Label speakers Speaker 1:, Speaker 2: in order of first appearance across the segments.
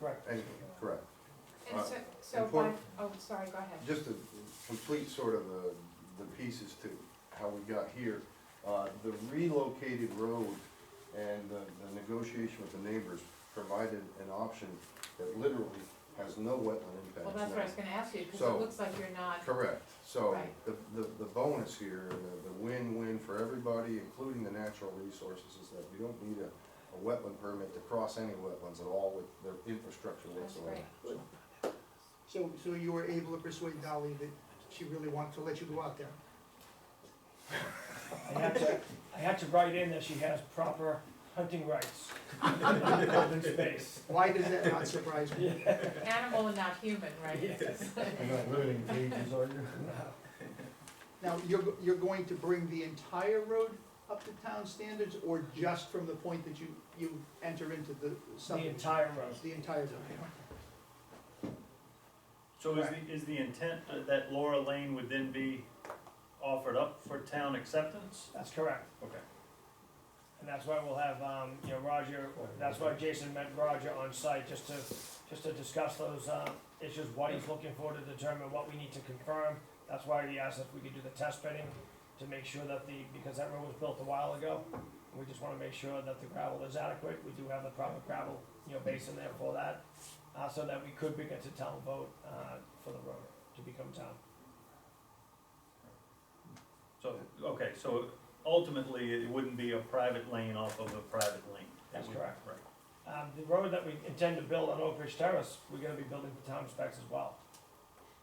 Speaker 1: Right.
Speaker 2: And, correct.
Speaker 3: And so, so
Speaker 2: and
Speaker 3: by,
Speaker 2: point-
Speaker 3: oh, sorry, go ahead.
Speaker 2: Just to complete sort of uh, the, the pieces to how we got here, uh, the relocated road and the, the negotiation with the neighbors provided an option that literally has no wetland impacts now.
Speaker 3: Well, that's what I was gonna ask you, because
Speaker 2: So-
Speaker 3: it looks like you're not,
Speaker 2: Correct, so
Speaker 3: Right.
Speaker 2: the, the, the bonus here, the, the win-win for everybody, including the natural resources, is that we don't need a, a wetland permit to cross any wetlands at all with their infrastructure
Speaker 3: that's
Speaker 2: whatsoever.
Speaker 3: great.
Speaker 1: So, so you were able to persuade Dolly that she really wanted to let you go out there?
Speaker 4: I had to, I had to write in that she has proper hunting rights in open space.
Speaker 1: Why does that not surprise me?
Speaker 3: Animal and not human, right?
Speaker 4: Yes.
Speaker 5: You're not limiting cages, are you?
Speaker 1: Now, you're, go- you're going to bring the entire road up to town standards, or just from the point that you, you enter into the
Speaker 4: The
Speaker 1: subdivision?
Speaker 4: entire road.
Speaker 1: The entire road.
Speaker 6: So is the, is the intent that Laura Lane would then be offered up for town acceptance?
Speaker 4: That's correct.
Speaker 6: Okay.
Speaker 4: And that's why we'll have, um, you know, Roger, that's why Jason met Roger on site, just to, just to discuss those, uh, issues, what he's looking for to determine what we need to confirm. That's why he asked if we could do the test pitting, to make sure that the, because that road was built a while ago. We just wanna make sure that the gravel is adequate, we do have the proper gravel, you know, basin there for that, uh, so that we could bring it to town vote, uh, for the road to become town.
Speaker 6: So, okay, so ultimately, it wouldn't be a private lane off of a private lane?
Speaker 4: That's correct.
Speaker 6: Right.
Speaker 4: Um, the road that we intend to build on Oak Ridge Terrace, we're gonna be building for town specs as well.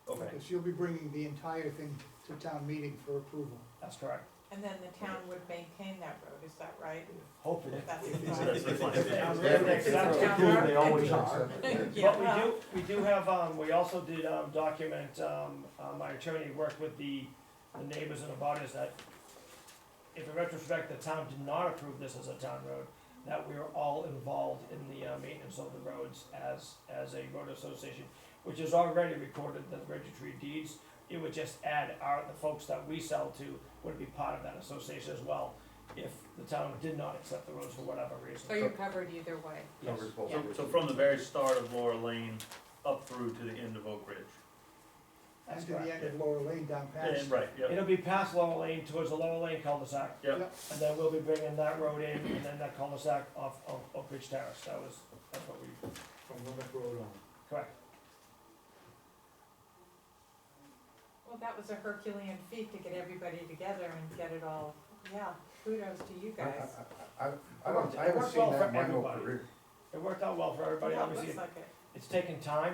Speaker 6: Okay,
Speaker 1: So you'll be bringing the entire thing to town meeting for approval.
Speaker 4: That's correct.
Speaker 3: And then the town would maintain that road, is that right?
Speaker 4: Hopefully.
Speaker 3: That's
Speaker 6: so
Speaker 3: the
Speaker 6: that's the plan.
Speaker 5: They always are.
Speaker 3: plan. Yeah,
Speaker 4: But we
Speaker 3: well,
Speaker 4: do, we do have, um, we also did, um, document, um, uh, my attorney worked with the, the neighbors and the abutters that if in retrospect, the town did not approve this as a town road, that we are all involved in the, uh, maintenance of the roads as, as a road association, which is already recorded in the registry of deeds. It would just add our, the folks that we sell to would be part of that association as well, if the town did not accept the roads for whatever reason.
Speaker 3: So you're covered either way.
Speaker 4: Yes.
Speaker 2: Covers both
Speaker 3: Yeah.
Speaker 2: bases.
Speaker 6: so from the very start of Laura Lane up through to the end of Oak Ridge?
Speaker 4: That's
Speaker 1: After the
Speaker 4: correct.
Speaker 1: end of Laura Lane down past.
Speaker 6: And, right, yep,
Speaker 4: It'll be past Lower Lane towards the Lower Lane cul-de-sac,
Speaker 6: yep,
Speaker 4: and then we'll be bringing that road in, and then that cul-de-sac off, off Oak Ridge Terrace, that was, that's what we,
Speaker 5: From Lubbock Road on.
Speaker 4: correct.
Speaker 3: Well, that was a Herculean feat to get everybody together and get it all, yeah, kudos to you
Speaker 2: I,
Speaker 3: guys.
Speaker 2: I, I- I don't, I haven't seen that in my whole career.
Speaker 4: It worked out well for everybody,
Speaker 3: Yeah, it
Speaker 4: obviously,
Speaker 3: looks like it.
Speaker 4: it's taken time,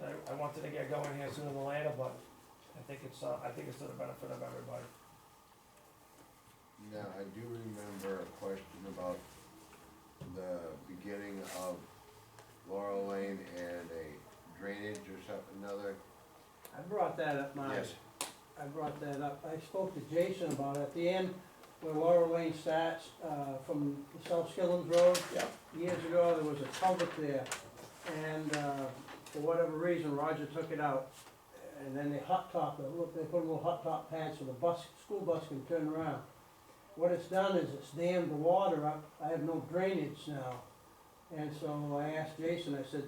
Speaker 4: and I, I wanted to get going here sooner than later, but I think it's, uh, I think it's to the benefit of everybody.
Speaker 7: Now, I do remember a question about the beginning of Laurel Lane and a drainage or something, another,
Speaker 8: I brought that up, my,
Speaker 7: yes,
Speaker 8: I brought that up, I spoke to Jason about it, at the end, where Laurel Lane starts, uh, from South Skilling's Road.
Speaker 4: Yeah.
Speaker 8: Years ago, there was a culvert there, and, uh, for whatever reason, Roger took it out. And then they hot top, it. look, they put little hot top pads so the bus, school bus can turn around. What it's done is it's dammed the water up, I have no drainage now. And so I asked Jason, I said,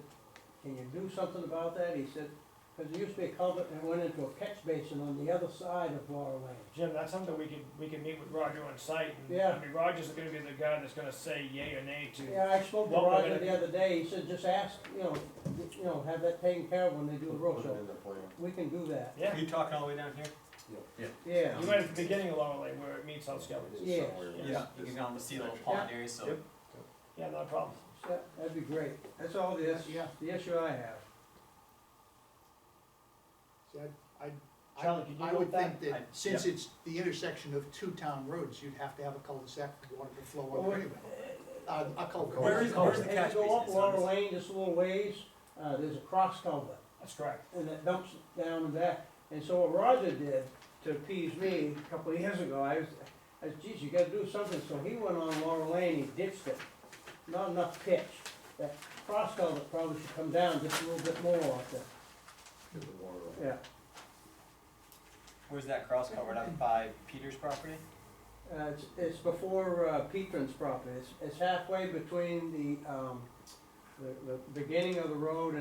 Speaker 8: can you do something about that? He said, because there used to be a culvert that went into a catch basin on the other side of Laurel Lane.
Speaker 4: Jim, that's something we could, we could meet with Roger on site, and,
Speaker 8: Yeah.
Speaker 4: I mean, Roger's gonna be the guy that's gonna say yay or nay to,
Speaker 8: Yeah, I spoke to
Speaker 4: What we're
Speaker 8: Roger
Speaker 4: gonna
Speaker 8: the
Speaker 4: do-
Speaker 8: other day, he said, just ask, you know, you know, have that taken care of when they do the road,
Speaker 7: put it
Speaker 8: so
Speaker 7: in the plan.
Speaker 8: we can do that,
Speaker 4: yeah.
Speaker 5: You talking all the way down here?
Speaker 8: yeah.
Speaker 4: You went at the beginning of Laurel Lane where it meets South Skilling.
Speaker 8: Yeah.
Speaker 2: Somewhere in
Speaker 5: Yeah,
Speaker 2: this-
Speaker 5: you can go on the sea little pond area, so.
Speaker 6: Yep.
Speaker 4: Yeah, not a problem.
Speaker 8: Yeah, that'd be great, that's all the, is-
Speaker 1: Yeah,
Speaker 8: the issue I have.
Speaker 1: see, I, I-
Speaker 4: Charlie, could you
Speaker 1: I, I
Speaker 4: go
Speaker 1: would
Speaker 4: with that?
Speaker 1: think that since it's the intersection of two town roads, you'd have to have a cul-de-sac for water to flow
Speaker 8: Well,
Speaker 1: up anyway. Uh, a culvert.
Speaker 5: Where is- where's the catch
Speaker 8: As you go up
Speaker 5: basin? So
Speaker 8: Laurel
Speaker 5: this-
Speaker 8: Lane just a little ways, uh, there's a cross culvert.
Speaker 4: That's correct.
Speaker 8: and it dumps down and back. And so what Roger did to appease me a couple of years ago, I was, I said, geez, you gotta do something, so he went on Laurel Lane, he ditched it, not enough pitch. That cross culvert probably should come down just a little bit more off there,
Speaker 2: Get the water off.
Speaker 8: yeah.
Speaker 5: Where's that cross covered up by Peter's property?
Speaker 8: Uh, it's, it's before, uh, Petron's property, it's, it's halfway between the, um, the, the beginning of the road